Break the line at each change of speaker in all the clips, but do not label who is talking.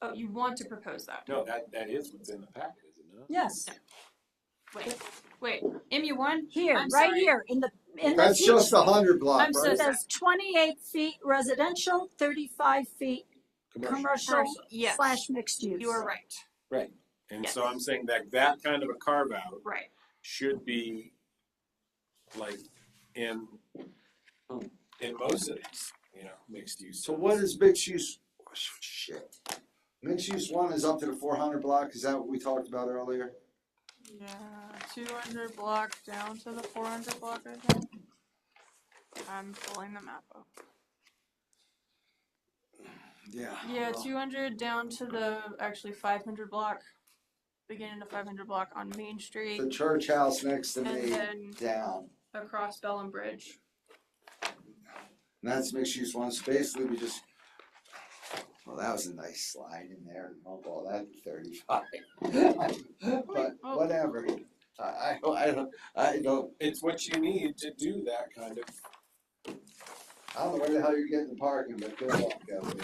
Oh, you want to propose that?
No, that, that is what's in the packet, is it not?
Yes,
Wait, wait, MU one?
here,
I'm
right
sorry.
here in the, in the.
That's just the hundred block,
I'm so
It
right?
sorry.
says twenty-eight feet residential, thirty-five feet
Commercial,
commercial
Yes.
slash mixed use.
You are right,
right. And so
Yes.
I'm saying that that kind of a carve out
right.
should be like in, in most cities, you know, mixed use.
So what is mixed use? Shit. Mixed use one is up to the four hundred block, is that what we talked about earlier?
Yeah, two hundred block down to the four hundred block, I think. I'm pulling the map up.
Yeah.
Yeah,
well,
two hundred down to the, actually five hundred block, beginning to five hundred block on Main
The
Street,
church house next to
and
me
then
down,
across Bell and Bridge.
and that's mixed use one, so basically we just. Well, that was a nice slide in there, and oh, I'll call that thirty-five. But whatever, I, I, I don't, I don't,
It's what you need to do that kind of,
I don't know where the hell you're getting the parking, but good luck, Kevin.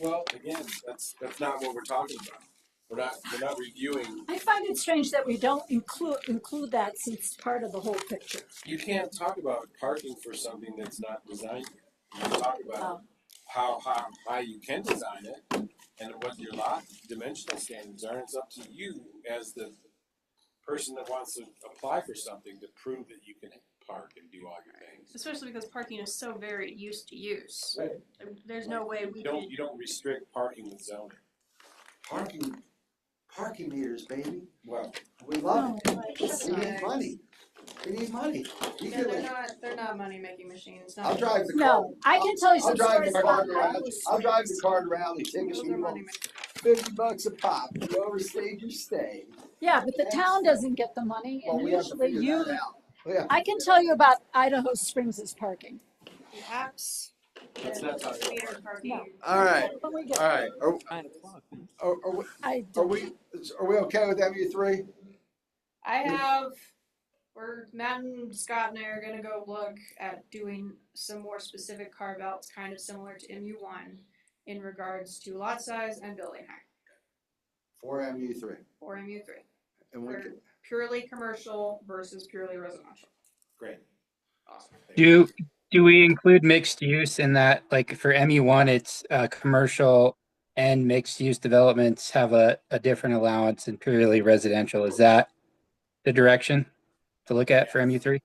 well, again, that's, that's not what we're talking about. We're not, we're not reviewing,
I find it strange that we don't include, include that since it's part of the whole picture.
you can't talk about parking for something that's not designed yet. You can talk about
Um,
how, how high you can design it and what your lot dimensional standards are. It's up to you as the person that wants to apply for something to prove that you can park and do all your things.
Especially because parking is so varied use to use.
Right.
There's no way we can,
You don't, you don't restrict parking with zoning.
Parking, parking meters, baby,
Well,
we love it.
no, like-
We need money. We need money. You could-
not, they're not money-making machines,
I'll drive the car.
No, I can tell you
I'll
some
drive
stories
the
about.
car to rally. I'll drive the car to rally. Tickets you want. Fifty bucks a pop. You overstayed your stay.
Yeah, but the town doesn't get the money
Well,
and
we have to
usually
figure
you,
that out. We have to
I can
figure
tell you about Idaho Springs' parking.
Perhaps.
Let's not talk about parking.
No.
All right,
When we get-
all right. Are,
nine o'clock.
are, are we,
I
are
don't-
we, are we okay with MU three?
I have, we're, Matt and Scott and I are gonna go look at doing some more specific carve outs, kind of similar to MU one in regards to lot size and building height
For MU three.
for MU three.
And we
For
can-
purely commercial versus purely residential.
Great.
Awesome.
Do, do we include mixed use in that, like for MU one, it's, uh, commercial and mixed use developments have a, a different allowance and purely residential, is that the direction to look at for MU three?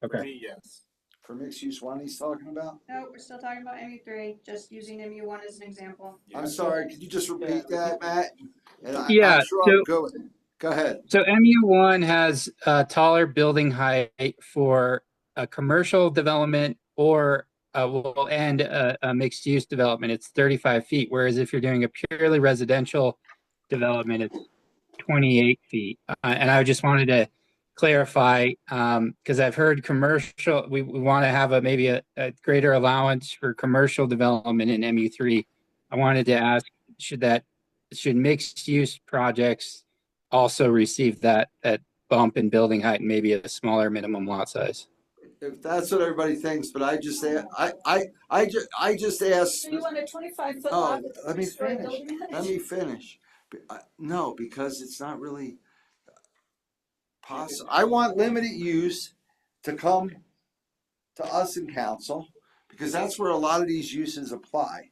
For
Okay.
me, yes.
For mixed use one he's talking about?
No, we're still talking about MU three, just using MU one as an example.
I'm sorry, could you just repeat that, Matt? And I-
Yeah,
I'm sure
so-
I'm good with it. Go ahead.
So MU one has a taller building height for a commercial development or uh well, and a, a mixed use development, it's thirty-five feet, whereas if you're doing a purely residential development, it's twenty-eight feet. Uh, and I just wanted to clarify, um, because I've heard commercial, we, we want to have a, maybe a, a greater allowance for commercial development in MU three. I wanted to ask, should that, should mixed use projects also receive that, that bump in building height and maybe a smaller minimum lot size.
If that's what everybody thinks, but I just say, I, I, I just, I just asked.
So you want a twenty-five foot
Oh,
lot with a
let me
three-story
finish.
building?
Let me finish. B- I- No, because it's not really possible. I want limited use to come to us in council, because that's where a lot of these uses apply.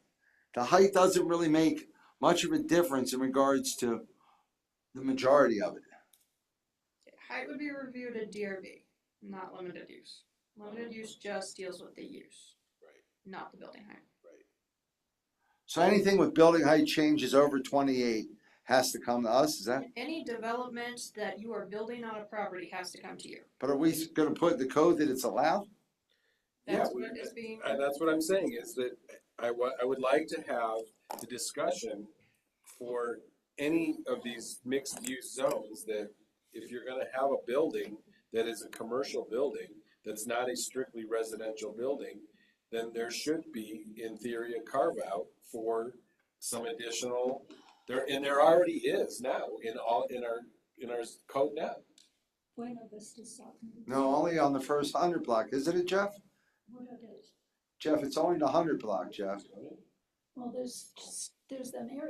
The height doesn't really make much of a difference in regards to the majority of it.
Height would be reviewed at DRB, not limited use. Limited use just deals with the use,
Right,
not the building height.
right.
So anything with building height changes over twenty-eight has to come to us, is that?
Any development that you are building on a property has to come to you.
But are we gonna put in the code that it's allowed?
That's
Yeah, we-
what is being,
And that's what I'm saying is that I wa- I would like to have the discussion for any of these mixed use zones that if you're gonna have a building that is a commercial building, that's not a strictly residential building, then there should be, in theory, a carve out for some additional, there, and there already is now in all, in our, in our code now.
No, only on the first hundred block, isn't it, Jeff? Jeff, it's only the hundred block, Jeff.
Well, there's, there's an area